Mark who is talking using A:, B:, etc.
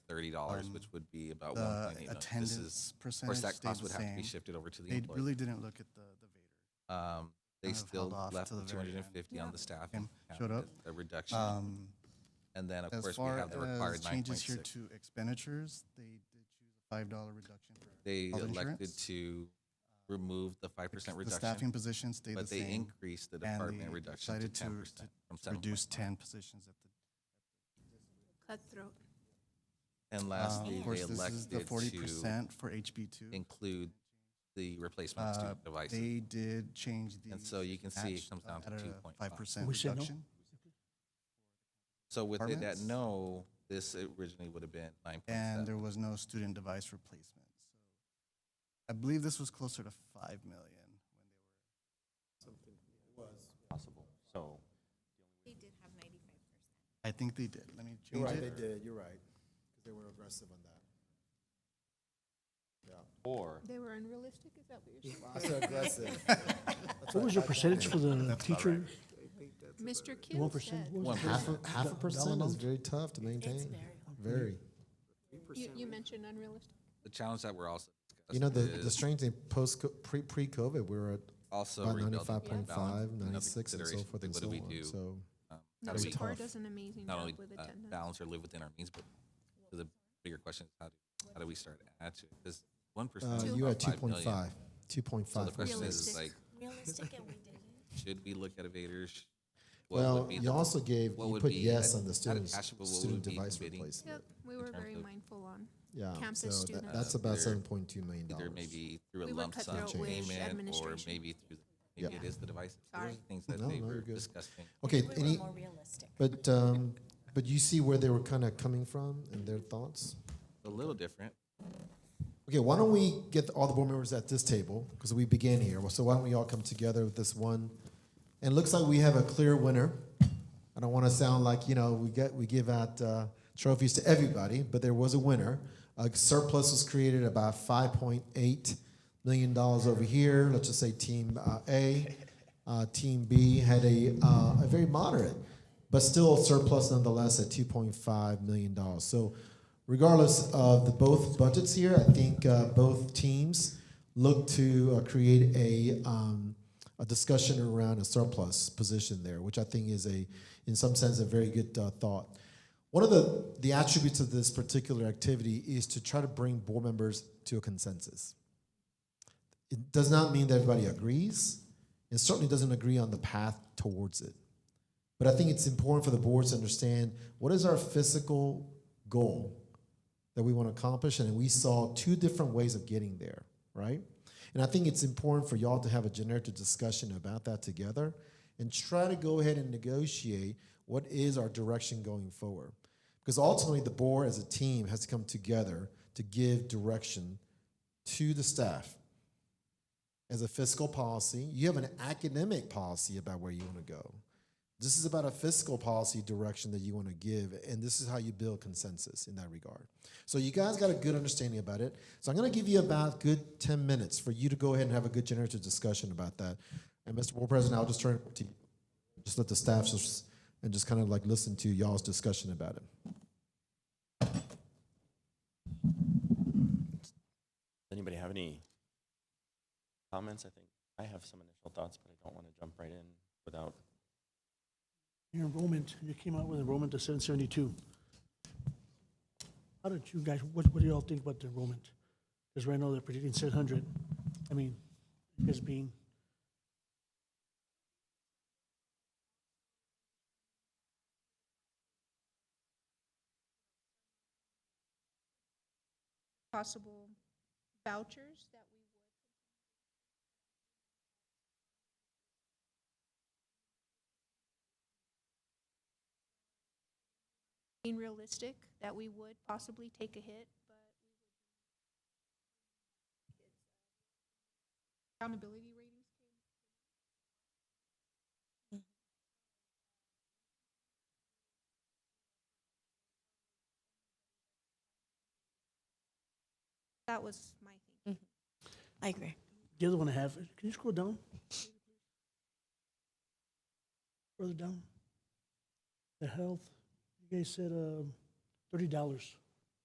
A: thirty dollars,
B: Um,
A: which would be about
B: the
A: one point eight million. uh, This
B: attendance
A: is, of course,
B: percentage
A: that
B: stayed
A: cost
B: the
A: would have to be
B: same.
A: shifted over to the
B: They
A: employer.
B: really didn't look at the, the Vader.
A: Um, they
B: kind of
A: still
B: held off
A: left
B: to the
A: two
B: very
A: hundred
B: end.
A: and fifty on the staff.
B: Came-
A: cap
B: showed up.
A: as A reduction.
B: Um,
A: And then, of
B: as
A: course, we
B: far
A: have the
B: as
A: required nine point
B: changes here
A: six.
B: to expenditures, they did choose a five dollar reduction for.
A: They
B: health
A: elected
B: insurance. um,
A: to remove the five percent
B: The staffing
A: reduction,
B: position stayed the
A: but they
B: same.
A: increased the
B: and
A: department
B: they
A: reduction to
B: decided to-
A: ten percent from
B: to
A: seven.
B: Reduce ten positions at the
C: Cutthroat.
A: And
B: Uh,
A: lastly,
B: Of
A: they
B: course, this is the
A: elected
B: forty
A: to
B: percent for HB two. Uh,
A: include the replacement student devices.
B: They did change the.
A: so you can see it comes down to 2.5.
B: Five percent
D: We said no.
B: reduction.
A: So with it at
B: departments.
A: no, this originally would have been nine point
B: And
A: seven.
B: there was no student device replacement. So I believe this was closer to five million.
E: possible. So
C: They did have ninety-five percent.
B: I think they did. Let me
F: You're
B: change
F: right, they
B: it.
F: did, you're right, because they were aggressive on that. Yeah,
E: or
C: They were unrealistic, is that what you're saying?
F: I said aggressive.
D: What was your percentage for the teacher?
C: Mr.
D: One
C: Kill
D: percent?
C: said,
D: What was it?
G: Half a, half a percent is very tough to
C: it's
G: maintain.
C: very,
G: Very.
C: you, you mentioned unrealistic.
A: The challenge that we're also
G: You know, the,
A: discussing
G: the
A: is
G: strange thing, post, pre, pre-COVID, we were at
A: also
G: about
A: rebuilding
G: ninety-five
A: fund
G: point five,
A: balance, another
G: ninety-six and so
A: consideration,
G: forth and
A: what
G: so
A: do we
G: on,
A: do?
G: so.
A: Um, How
C: No,
A: do
G: was
A: we
G: tough.
C: Satar does an amazing
A: not
C: job
A: only
C: with
A: uh,
C: attendance.
A: balance or live within our means, but so the bigger question is how do, how do we start to add to it? Because one percent
G: Uh,
A: is
G: you
A: about
G: had two
A: five
G: point
A: million.
G: five, two point
A: So the
G: five.
A: question is, is like,
C: Realistic.
H: realistic and we didn't.
A: should we look at evaders? What would
G: Well,
A: be
G: you
A: the-
G: also gave,
A: what
G: you
A: would
G: put
A: be
G: yes
A: ad-
G: on the
A: ad-
G: students,
A: actionable, what
G: student
A: would be
G: device
A: committing?
C: Yep,
G: replacement.
C: we were
A: terms
C: very
A: of,
C: mindful on.
G: Yeah,
C: Campus
G: so that-
C: students.
G: that's
A: Uh,
G: about
A: they're-
G: seven point two million
A: either
G: dollars.
A: maybe through a
C: We would
A: lump
C: cut
A: sum
C: throat with
A: payment or
C: administration.
A: maybe through, maybe it is the device. Those are
C: Sorry.
A: the things that
G: No,
A: they
G: no,
A: were
G: you're good.
A: discussing.
G: Okay,
H: We
G: any,
H: were more realistic.
G: but, um, but you see where they were kind of coming from and their thoughts?
A: A little different.
G: Okay, why don't we get all the board members at this table because we began here. Well, So why don't we all come together with this one? And it looks like we have a clear winner. I don't want to sound like you know we get we give out uh, trophies to everybody, but there was a winner. A surplus was created about five point eight million dollars over here. Let's just say Team uh, A, uh, Team B had a uh, a very moderate, but still surplus nonetheless at two point five million dollars. So regardless of the both budgets here, I think uh, both teams look to uh, create a, um, a discussion around a surplus position there, which I think is a, in some sense, a very good uh, thought. One of the, the attributes of this particular activity is to try to bring board members to a consensus. It does not mean that everybody agrees. It certainly doesn't agree on the path towards it. But I think it's important for the boards to understand what is our physical goal that we want to accomplish, and we saw two different ways of getting there, right? And I think it's important for y'all to have a generative discussion about that together and try to go ahead and negotiate what is our direction going forward. Because ultimately, the board as a team has to come together to give direction to the staff as a fiscal policy. You have an academic policy about where you want to go. This is about a fiscal policy direction that you want to give, and this is how you build consensus in that regard. So you guys got a good understanding about it. So I'm going to give you about good 10 minutes for you to go ahead and have a good generative discussion about that. And Mr. Board President, I'll just turn it to you. Just let the staff just, and just kind of like listen to y'all's discussion about it.
E: anybody have any comments? I think I have some initial thoughts, but I don't want to jump right in without.
D: Your enrollment, you came out with enrollment to seven seventy-two. How did you guys, what, what do y'all think about the enrollment? Because right now they're predicting seven hundred. I mean, you guys being,
C: Possible vouchers that we would. Being realistic, that we would possibly take a hit, but. uh, Accountability ratings. That was my thing.
H: I agree.
D: the other one I have, can you scroll down? Further down. The health, you guys said, um, thirty dollars.